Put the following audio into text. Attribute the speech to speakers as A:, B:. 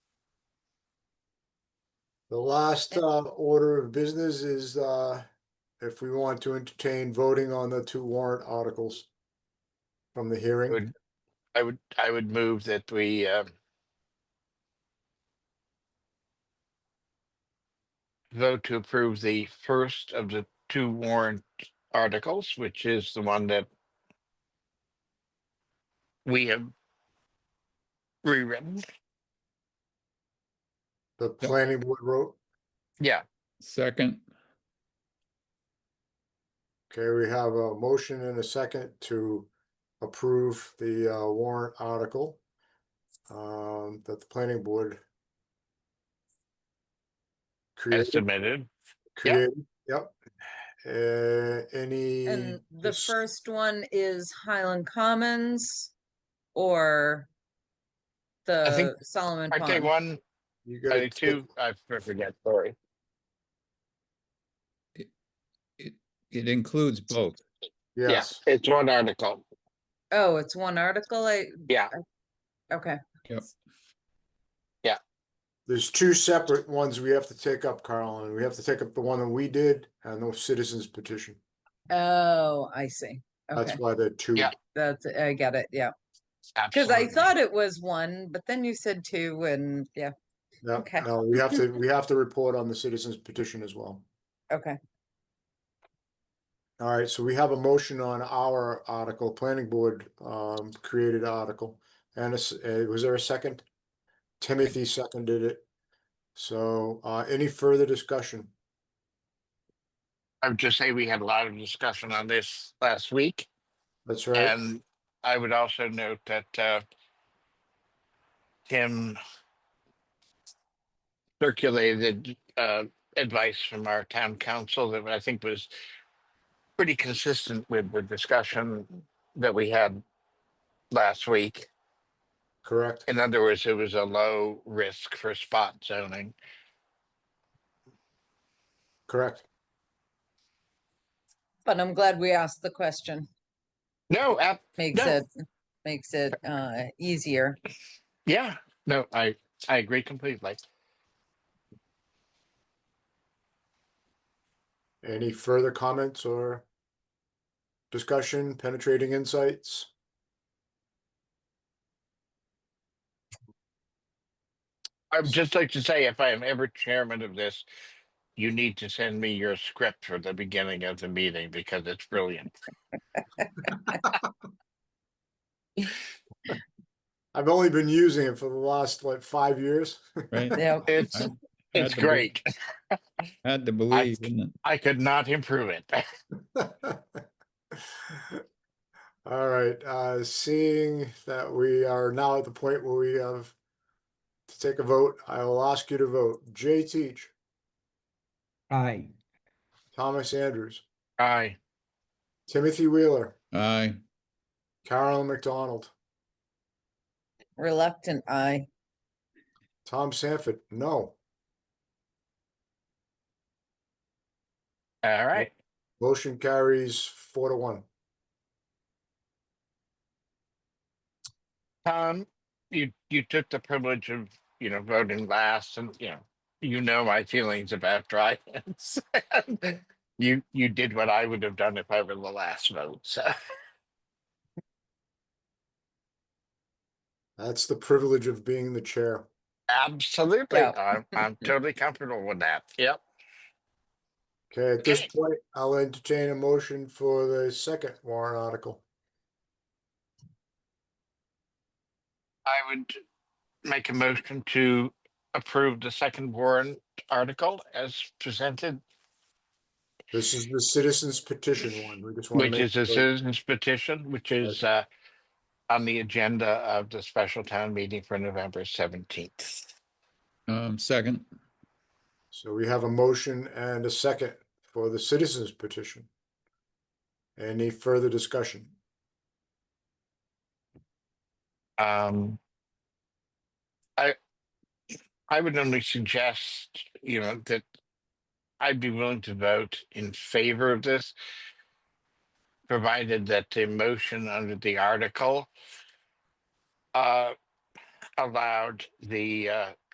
A: The last
B: And-
A: uh, order of business is uh, if we want to entertain voting on the two warrant articles from the hearing.
C: Would- I would, I would move that we, um, vote to approve the first of the two warrant articles, which is the one that we have rewritten.
A: The planning board wrote,
C: Yeah,
D: Second,
A: okay, we have a motion and a second to approve the uh, warrant article um, that the planning board
C: as
A: created,
C: submitted. yeah.
A: created, yep. Uh, Any?
B: And the
A: dis-
B: first one is Highland Commons or
C: think-
B: the Solomon
C: I take
B: Pond.
C: one,
A: You
C: I
A: gotta
C: take two, I forget, sorry.
D: it, it includes both.
C: Yeah,
A: Yes.
C: It's one article.
B: Oh, it's one article, I.
C: Yeah.
B: I- Okay,
A: There's two separate ones we have to take up, Carl, and we have to take up the one that we did and the citizens petition.
B: oh, I see, okay,
A: That's why they're two.
C: Yeah.
B: that's, I get it, yeah, cause I
C: Absolutely.
B: thought it was one, but then you said two and, yeah,
A: No,
B: Okay.
A: No, we have to, we have to report on the citizens petition as well.
B: okay.
A: All right, so we have a motion on our article, planning board um created article. And it's, uh, was there a second? Timothy seconded it. So uh any further discussion?
C: I would just say we had a lot of discussion on this last week.
A: That's right.
C: And I would also note that uh, Tim circulated uh, advice from our town council that I think was pretty consistent with the discussion that we had last week.
A: Correct.
C: In other words, it was a low risk for spot zoning.
A: Correct.
B: But I'm glad we asked the question,
C: No, app,
B: makes
C: No.
B: it, makes it, uh, easier.
C: yeah, no, I, I agree completely.
A: Any further comments or discussion, penetrating insights?
C: I would just like to say, if I am ever chairman of this, you need to send me your script for the beginning of the meeting because it's brilliant.
A: I've only been using it for the last like five years.
D: Right?
B: Yeah,
C: It's,
D: Had
C: it's
D: to be-
C: great.
D: Had to believe, didn't it?
C: I could not improve it.
A: All right, uh, seeing that we are now at the point where we have to take a vote, I will ask you to vote. Jay Teach,
E: Aye,
A: Thomas Andrews,
C: Aye,
A: Timothy Wheeler,
D: Aye,
A: Carolyn McDonald,
B: Reluctant, I,
A: Tom Sanford, no.
C: all right.
A: Motion carries four to one.
C: Tom, you, you took the privilege of, you know, voting last and, you know, you know my feelings about dry hints. You, you did what I would have done if I were the last vote, so.
A: That's the privilege of being the chair.
C: Absolutely,
B: Yeah.
C: I'm, I'm totally comfortable with that. Yep.
A: Okay, at this
C: Okay.
A: point, I'll entertain a motion for the second warrant article.
C: I would make a motion to approve the second warrant article as presented,
A: This is the citizens petition one. We just want to
C: which
A: make
C: is a
A: sure-
C: citizens petition, which is uh on the agenda of the special town meeting for November seventeenth.
D: um, second,
A: So we have a motion and a second for the citizens petition. Any further discussion?
C: Um I I would only suggest, you know, that I'd be willing to vote in favor of this, provided that the motion under the article uh allowed the uh